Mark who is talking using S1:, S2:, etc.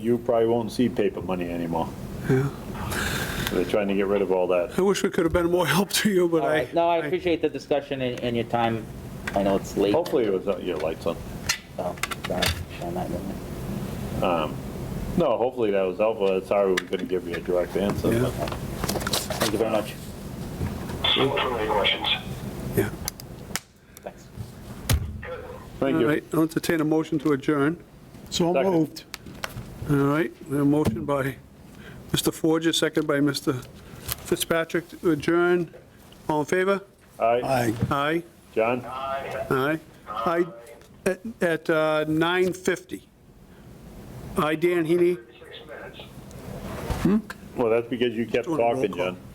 S1: you probably won't see paper money anymore.
S2: Yeah.
S1: They're trying to get rid of all that.
S2: I wish we could have been more help to you, but
S3: All
S2: I.
S3: right, no, I appreciate the discussion and, and your time. I know it's late.
S1: Hopefully it was, uh, your lights on.
S3: so, sorry, I'm not doing
S1: No, hopefully that was helpful. That's how we couldn't give you a direct answer. but-
S3: it. Thank you very much.
S4: No further questions.
S2: Yeah.
S3: Thanks.
S4: Good.
S1: Thank
S2: All
S1: you.
S2: right, I'll entertain a motion to adjourn.
S5: So
S1: Second.
S5: moved.
S2: All right, a motion by Mr. Forger, second by Mr. Fitzpatrick to adjourn. All in favor?
S1: Aye,
S5: Aye.
S2: Aye,
S1: John?
S4: Aye.
S2: aye. Aye, at at, uh, 9:50. Aye, Dan Heaney.
S4: Six minutes.
S1: Well, that's because you kept
S2: Doing a roll
S1: talking,
S2: call.
S1: John.